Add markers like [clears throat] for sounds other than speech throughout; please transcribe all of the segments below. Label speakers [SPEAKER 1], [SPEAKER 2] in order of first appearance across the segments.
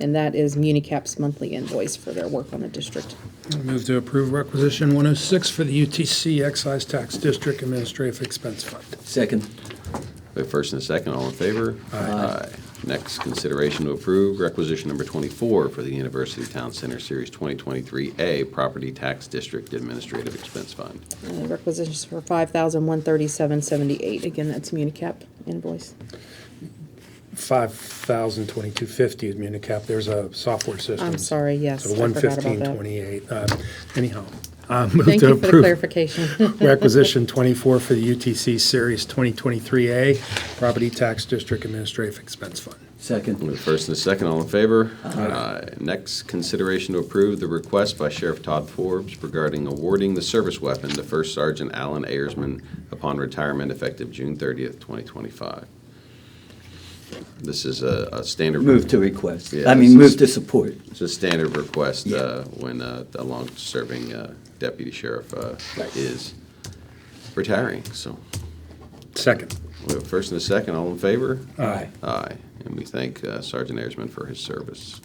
[SPEAKER 1] And that is MuniCap's monthly invoice for their work on the district.
[SPEAKER 2] Move to approve requisition 106 for the UTC Excise Tax District Administrative Expense Fund.
[SPEAKER 3] Second.
[SPEAKER 4] We have first and a second, all in favor? Aye. Next, consideration to approve requisition number 24 for the University Town Center Series 2023A Property Tax District Administrative Expense Fund.
[SPEAKER 1] And Uh, requisitions for five thousand one thirty-seven seventy-eight. Again, that's MuniCap invoice.
[SPEAKER 2] 5,022.50 is Municap. There's a software system.
[SPEAKER 1] I'm sorry, yes.
[SPEAKER 2] So
[SPEAKER 1] I forgot about that. [laughs]
[SPEAKER 2] 115.28. Uh, Anyhow, uh, move
[SPEAKER 1] Thank
[SPEAKER 2] to
[SPEAKER 1] you for the
[SPEAKER 2] approve [laughs]
[SPEAKER 1] clarification.
[SPEAKER 2] requisition 24 for the UTC Series 2023A Property Tax District Administrative Expense Fund.
[SPEAKER 4] We
[SPEAKER 3] Second.
[SPEAKER 4] have first and a second, all in favor? Aye. Next, consideration to approve the request by Sheriff Todd Forbes regarding awarding the service weapon to First Sergeant Alan Ayersman upon retirement effective June 30th, 2025. This is a a standard.
[SPEAKER 3] Move to request.
[SPEAKER 4] Yeah,
[SPEAKER 3] I mean,
[SPEAKER 4] this
[SPEAKER 3] move
[SPEAKER 4] is-
[SPEAKER 3] to support.
[SPEAKER 4] It's a standard request
[SPEAKER 3] Yeah.
[SPEAKER 4] uh, when uh, a long-serving uh, deputy sheriff uh, is retiring. So
[SPEAKER 2] Second.
[SPEAKER 4] we have first and a second, all in favor?
[SPEAKER 3] Aye.
[SPEAKER 4] Aye. And we thank uh, Sergeant Ayersman for his service.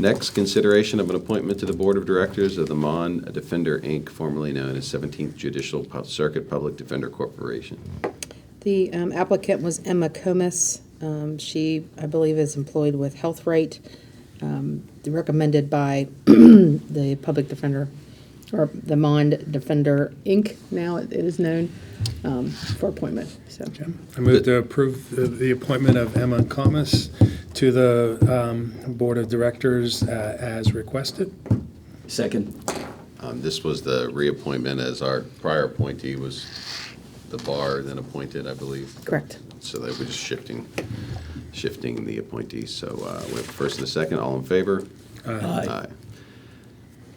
[SPEAKER 4] Next, consideration of an appointment to the Board of Directors of the Mon Defender, Inc., formerly known as 17th Judicial Pu- Circuit Public Defender Corporation.
[SPEAKER 1] The um, applicant was Emma Comus. Um, She, I believe, is employed with Health Rate, um, recommended by [clears throat] the Public Defender, or the Mond Defender, Inc., now it is known, um, for appointment, so.
[SPEAKER 2] I move to approve the- the appointment of Emma Comas to the um, Board of Directors uh, as requested.
[SPEAKER 3] Second.
[SPEAKER 4] Um, This was the reappointment as our prior appointee was the bar then appointed, I believe.
[SPEAKER 1] Correct.
[SPEAKER 4] So they were just shifting, shifting the appointees. So uh, we have a first and a second, all in favor?
[SPEAKER 3] Aye.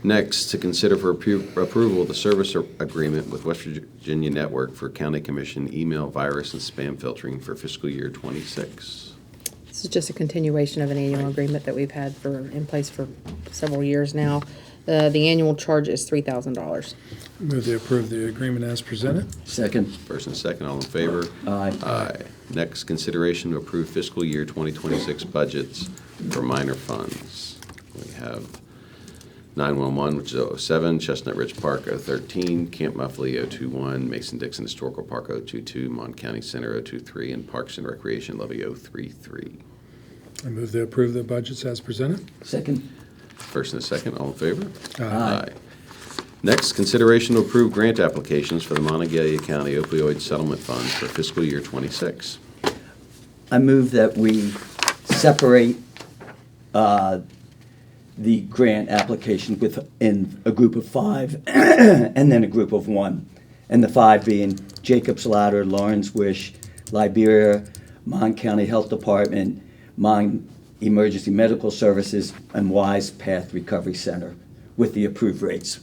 [SPEAKER 4] Next, to consider for appro- approval the service ar- agreement with West Virginia Network for County Commission email virus and spam filtering for fiscal year '26.
[SPEAKER 1] This is just a continuation of an annual agreement that we've had for, in place for several years now. Uh, The annual charge is $3,000.
[SPEAKER 2] Move to approve the agreement as presented.
[SPEAKER 3] Second.
[SPEAKER 4] First and second, all in favor?
[SPEAKER 3] Aye.
[SPEAKER 4] Aye. Uh, Next, consideration to approve fiscal year 2026 budgets for minor funds. We have 911, which is 07, Chestnut Ridge Park 013, Camp Muffley 021, Mason-Dixon Historical Park 022, Mon County Center 023, and Parks and Recreation Levy 033.
[SPEAKER 2] I move to approve the budgets as presented.
[SPEAKER 3] Second.
[SPEAKER 4] First and a second, all in favor?
[SPEAKER 3] Aye.
[SPEAKER 4] Next, consideration to approve grant applications for the Montague County Opioid Settlement Fund for fiscal year '26.
[SPEAKER 3] I move that we separate uh, the grant application within a group of five [clears throat] and then a group of one. And the five being Jacob's Ladder, Lawrence Wish, Liberia, Mon County Health Department, Mon Emergency Medical Services, and Wise Path Recovery Center with the approved rates.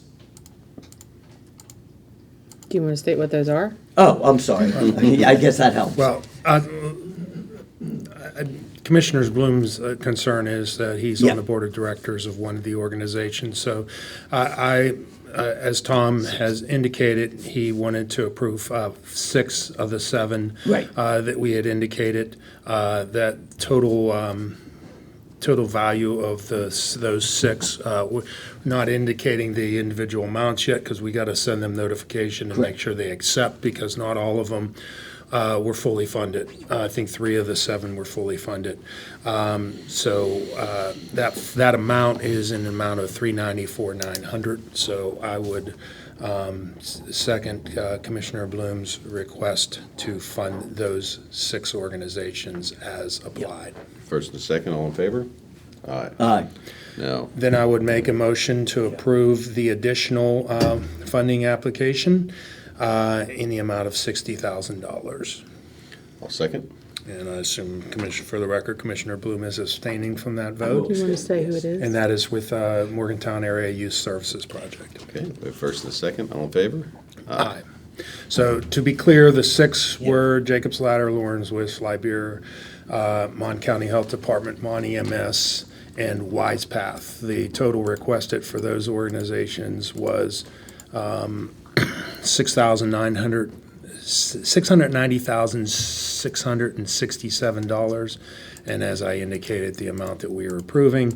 [SPEAKER 1] Do you want to state what those are?
[SPEAKER 3] Oh, I'm sorry. I guess that helps.
[SPEAKER 2] Well, uh, I- Commissioner Bloom's uh, concern is that he's
[SPEAKER 3] Yeah.
[SPEAKER 2] on the board of directors of one of the organizations. So I, I, uh, as Tom has indicated, he wanted to approve uh, six of the seven
[SPEAKER 3] Right.
[SPEAKER 2] uh, that we had indicated. Uh, That total, um, total value of the, s- those six, uh, we're not indicating the individual amounts yet, because we got to send them notification and make
[SPEAKER 3] Correct.
[SPEAKER 2] sure they accept, because not all of them uh, were fully funded. Uh, I think three of the seven were fully funded. Um, So uh, that, that amount is an amount of three ninety-four, nine hundred. So I would um, s- second uh, Commissioner Bloom's request to fund those six organizations as applied.
[SPEAKER 4] First and second, all in favor? Aye.
[SPEAKER 3] Aye.
[SPEAKER 4] No.
[SPEAKER 2] Then I would make a motion to approve the additional um, funding application uh, in the amount of $60,000.
[SPEAKER 4] I'll second.
[SPEAKER 2] And I assume, Commissioner, for the record, Commissioner Bloom is abstaining from that
[SPEAKER 1] Do
[SPEAKER 2] vote.
[SPEAKER 1] you want to say who it is?
[SPEAKER 2] And that is with uh, Morgantown Area Youth Services Project.
[SPEAKER 4] Okay, we have first and second, all in favor?
[SPEAKER 2] Aye. So to be clear, the six were Jacob's Ladder, Lawrence Wish, Liberia, uh, Mon County Health Department, Mon EMS, and Wise Path. The total requested for those organizations was um, [coughs] six thousand nine hundred, six hundred ninety thousand, six hundred and sixty-seven dollars And as I indicated, the amount that we are approving